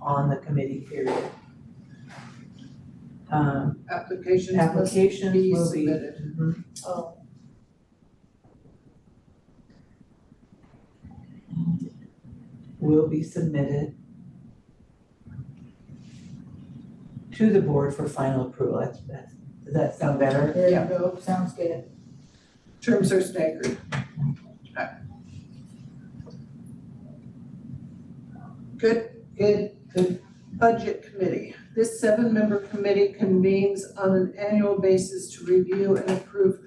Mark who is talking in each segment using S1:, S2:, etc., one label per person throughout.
S1: on the committee period. Um,
S2: Applications must
S1: applications
S2: be
S1: will be.
S2: submitted.
S1: Mhm.
S3: Oh.
S1: Will be submitted to the board for final approval. That's, that's, does that sound better?
S3: There
S2: Yeah.
S3: you go, sounds good.
S2: Terms are staggered. Good, good, good. Budget committee. This seven-member committee convenes on an annual basis to review and approve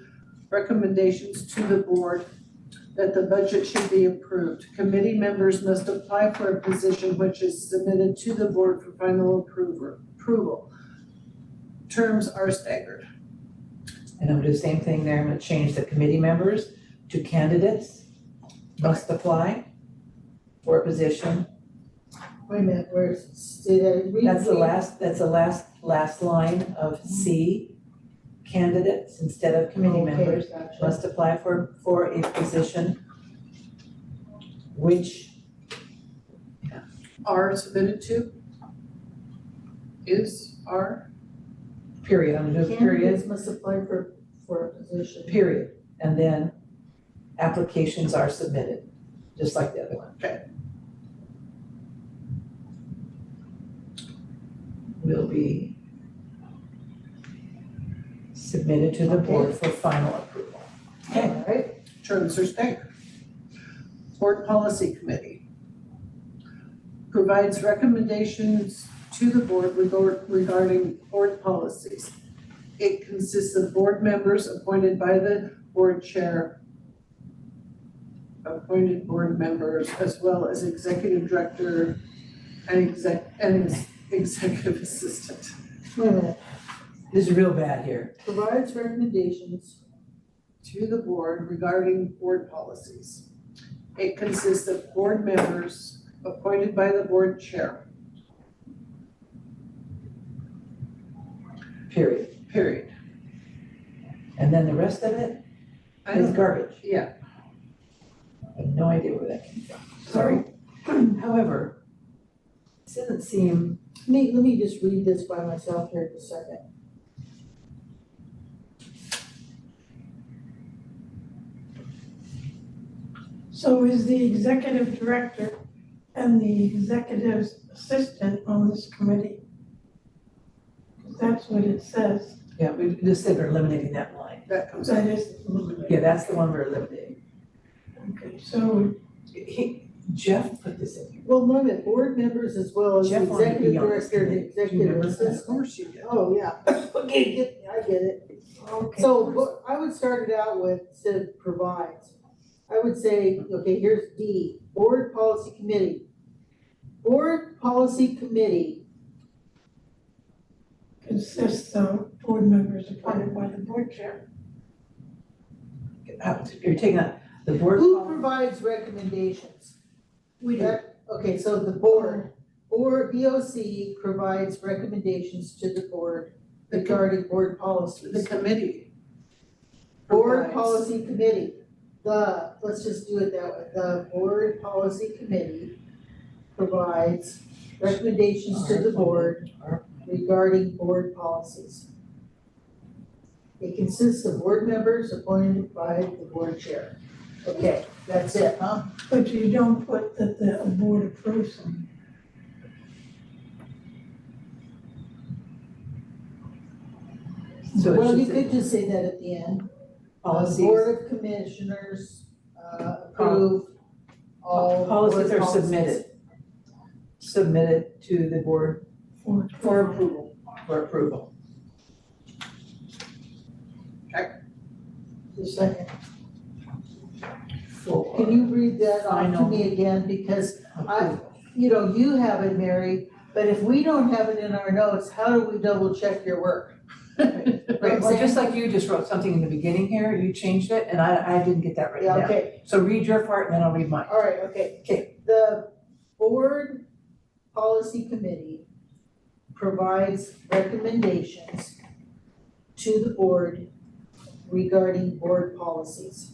S2: recommendations to the board that the budget should be approved. Committee members must apply for a position which is submitted to the board for final approver, approval. Terms are staggered.
S1: And I'm gonna do the same thing there, I'm gonna change the committee members to candidates must apply for a position.
S3: Wait a minute, where's, did I read?
S1: That's the last, that's the last, last line of C. Candidates instead of committee
S3: Okay,
S1: members
S3: gotcha.
S1: must apply for, for a position which
S2: are submitted to? Is, are,
S1: period, I'm gonna do period,
S3: Candidates must apply for, for a position.
S1: period, and then applications are submitted, just like the other one.
S2: Okay.
S1: Will be submitted to the board for final approval. Okay.
S3: All right,
S2: terms are staggered. Board Policy Committee provides recommendations to the board regard- regarding board policies. It consists of board members appointed by the board chair, appointed board members, as well as executive director and exec, and executive assistant.
S3: wait a minute,
S1: This is real bad here.
S3: provides recommendations.
S2: to the board regarding board policies. It consists of board members appointed by the board chair,
S1: Period.
S2: period.
S1: And then the rest of it
S2: I
S1: is
S2: don't,
S1: garbage.
S2: yeah,
S1: I have no idea where that came from. Sorry. However, this doesn't seem,
S3: Let me, let me just read this by myself here for a second.
S4: So is the executive director and the executive assistant on this committee? 'Cause That's what it says,
S1: yeah, we just said we're eliminating that line.
S2: that comes out.
S4: that is,
S1: Yeah, that's the one we're eliminating.
S4: okay, so
S1: He, Jeff put this in here.
S3: Well, wait a minute, board members as well as
S1: Jeff wanted to be
S3: executive
S1: on this
S3: director, and
S1: committee. Do you
S3: executive
S1: remember that?
S3: assistant.
S2: Of course you do.
S3: Oh, yeah, okay, get, I get it.
S4: okay.
S3: So what I would start it out with, instead of provides, I would say, okay, here's D, Board Policy Committee. Board Policy Committee,
S4: Consists of board members appointed by the board chair.
S1: Uh, You're taking out the board.
S3: who
S1: policy.
S3: provides recommendations?
S4: We
S3: That- Okay, so the board, or BOC provides recommendations to the board
S2: The com-
S3: regarding board
S2: the
S3: policies.
S2: committee.
S3: Board
S2: provides-
S3: Policy Committee, the, let's just do it that way, the Board Policy Committee provides recommendations to the board
S1: Or-
S3: regarding board policies. It consists of board members appointed by the board chair. Okay, that's it, huh?
S4: But you don't put that the board approves them.
S1: So
S3: Well,
S1: it
S3: you
S1: should say
S3: could just say that at the end. The
S1: policies,
S3: Board of Commissioners, uh, approve all board
S1: policies are submitted. Submitted to the board
S4: for-
S2: For approval.
S1: for approval.
S3: Just a second.
S1: For
S3: Can you read that off to
S1: Final.
S3: me again? Because,
S1: approval.
S3: you know, you have it, Mary, but if we don't have it in our notes, how do we double check your work?
S1: Right, well, just like you just wrote something in the beginning here, you changed it, and I, I didn't get that written
S3: Yeah,
S1: down.
S3: okay,
S1: So read your part and then I'll read mine.
S3: All right, okay.
S1: Okay.
S3: The board policy committee provides recommendations to the board regarding board policies.